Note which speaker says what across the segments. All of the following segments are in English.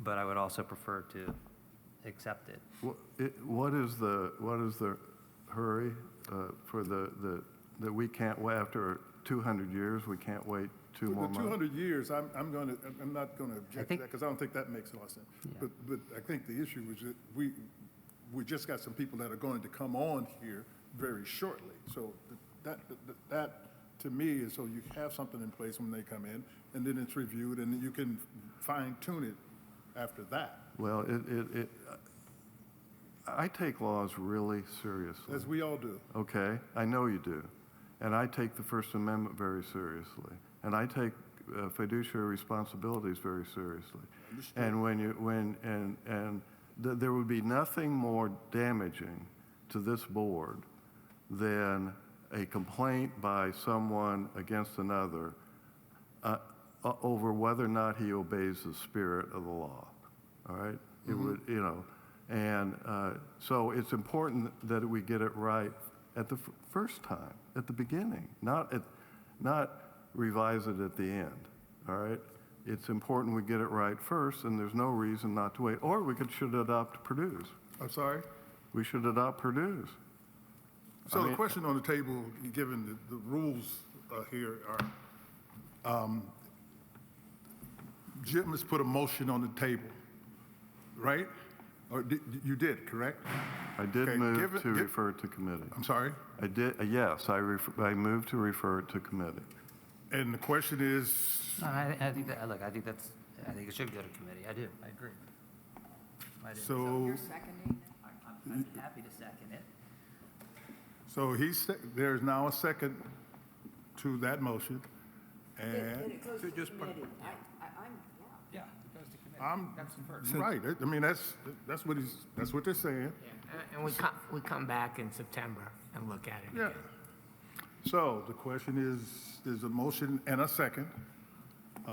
Speaker 1: but I would also prefer to accept it.
Speaker 2: Wha- it- What is the, what is the hurry uh, for the, the, that we can't, wa- after 200 years, we can't wait two more
Speaker 3: For the
Speaker 2: months?
Speaker 3: 200 years, I'm, I'm going to, I'm not going to object to
Speaker 1: think-
Speaker 3: that because I don't think that makes a lot of sense.
Speaker 1: Yeah.
Speaker 3: But, but I think the issue is that we, we just got some people that are going to come on here very shortly. So th- that, that- that, to me, is so you have something in place when they come in and then it's reviewed and you can fine tune it after that.
Speaker 2: Well, it, it, it, I take laws really seriously.
Speaker 3: As we all do.
Speaker 2: Okay, I know you do. And I take the First Amendment very seriously. And I take uh, fiduciary responsibilities very seriously. And when you, when, and, and th- there would be nothing more damaging to this board than a complaint by someone against another uh, o- over whether or not he obeys the spirit of the law. All right? It
Speaker 3: Mm-hmm.
Speaker 2: would, you know, and uh, so it's important that we get it right at the f- first time, at the beginning, not at, not revise it at the end. All right? It's important we get it right first, and there's no reason not to wait. Or we could should adopt Purdue's.
Speaker 3: I'm sorry?
Speaker 2: We should adopt Purdue's.
Speaker 3: So the question on the table, given the, the rules uh, here are, um, Jim has put a motion on the table, right? Or di- di- you did, correct?
Speaker 2: I did
Speaker 3: Okay, give
Speaker 2: move
Speaker 3: it-
Speaker 2: to
Speaker 3: give- Um,
Speaker 2: refer to committee.
Speaker 3: I'm sorry?
Speaker 2: I did, uh, yes, I ref- I moved to refer it to committee.
Speaker 3: And the question is,
Speaker 1: No, I, I think that, look, I think that's, I think it should go to committee. I do, I agree. I do.
Speaker 3: so,
Speaker 4: seconding it?
Speaker 1: I'm, I'm happy to second it.
Speaker 3: so he's, sec- there's now a second to that motion.
Speaker 4: Then
Speaker 3: And,
Speaker 4: it goes to committee. I, I, I'm, yeah.
Speaker 5: Yeah, it goes to committee.
Speaker 3: I'm-
Speaker 5: That's the first.
Speaker 3: right, I mean, that's, that's what he's, that's what they're saying.
Speaker 6: And- And we come, we come back in September and look at it
Speaker 3: Yeah.
Speaker 6: again.
Speaker 3: So the question is, there's a motion and a second.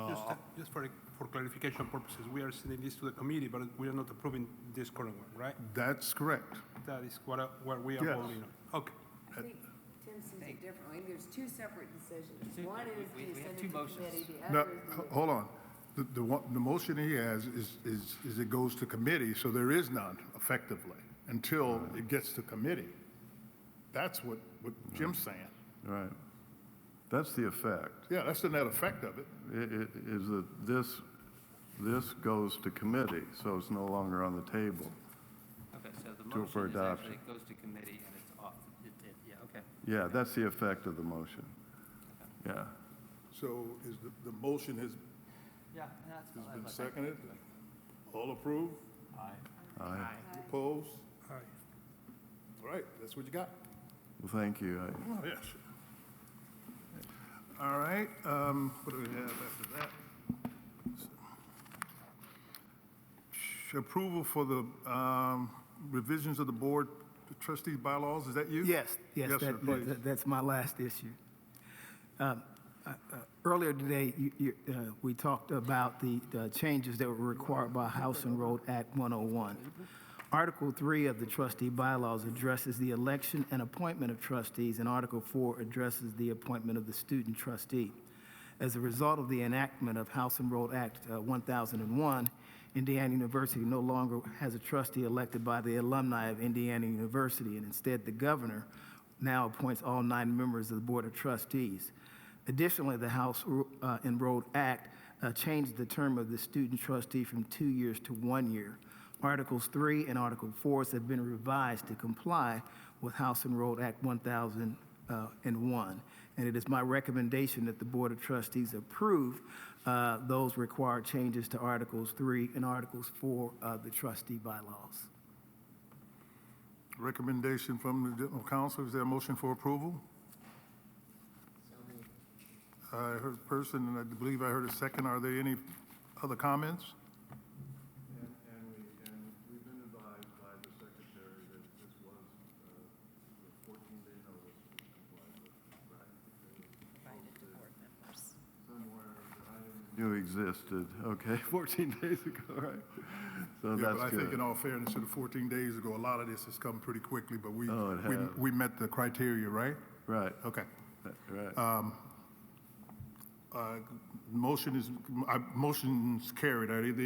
Speaker 5: Just, just for, for clarification purposes, we are sending this to the committee, but we are not approving this current one, right?
Speaker 3: That's correct.
Speaker 5: That is what, I- what we are
Speaker 3: Yes.
Speaker 5: voting on. Okay.
Speaker 4: I think Tim sees it differently. There's two separate decisions. One is do you send it to committee, the
Speaker 3: No,
Speaker 4: other is. do
Speaker 3: h-
Speaker 4: you-
Speaker 3: hold on. The, the one, the motion he has is, is, is it goes to committee, so there is none effectively until it gets to committee. That's what, what Jim's saying.
Speaker 2: Right. That's the effect,
Speaker 3: Yeah, that's the net effect of it.
Speaker 2: i- i- is that this, this goes to committee, so it's no longer on the table.
Speaker 1: Okay, so the
Speaker 2: To- for
Speaker 1: motion is actually,
Speaker 2: adoption.
Speaker 1: goes to committee and it's off. It, it, yeah, okay.
Speaker 2: Yeah, that's the effect of the motion. Yeah.
Speaker 3: So is the, the motion has,
Speaker 1: Yeah, that's
Speaker 3: has been seconded? All approved?
Speaker 2: I,
Speaker 3: Opposed?
Speaker 5: All right.
Speaker 3: All right, that's what you got?
Speaker 2: well, thank you. I-
Speaker 3: Oh, yes. All right, um, what do we have after that? Approval for the, um, revisions of the board trustees bylaws, is that you?
Speaker 7: Yes,
Speaker 3: Yes,
Speaker 7: yes, that-
Speaker 3: sir,
Speaker 7: that-
Speaker 3: please.
Speaker 7: that- that's my last issue. Um, uh, uh, Earlier today, you- you, uh, we talked about the the changes that were required by House and Road Act 101. Article 3 of the trustee bylaws addresses the election and appointment of trustees, and Article 4 addresses the appointment of the student trustee. As a result of the enactment of House and Road Act uh, 1001, Indiana University no longer has a trustee elected by the alumni of Indiana University, and instead the governor now appoints all nine members of the Board of Trustees. Additionally, the House uh, and Road Act uh, changed the term of the student trustee from two years to one year. Articles 3 and Article 4 have been revised to comply with House and Road Act 1001. And it is my recommendation that the Board of Trustees approve uh, those required changes to Articles 3 and Articles 4 of the trustee bylaws.
Speaker 3: Recommendation from the general counsel, is there a motion for approval? I heard a person, and I believe I heard a second, are there any other comments?
Speaker 2: And, and we, and we've been advised by the secretary that this was, uh, the fourteen day notice was complied with, right? Somewhere that I didn't knew existed, okay, fourteen days ago, right? So
Speaker 3: Yeah,
Speaker 2: that's
Speaker 3: but I think
Speaker 2: good.
Speaker 3: in all fairness, to the 14 days ago, a lot of this has come pretty quickly, but we,
Speaker 2: Oh, it
Speaker 3: we-
Speaker 2: has.
Speaker 3: we met the criteria, right?
Speaker 2: Right,
Speaker 3: Okay.
Speaker 2: right.
Speaker 3: Uh, Motion is, I- motion's carried. Are there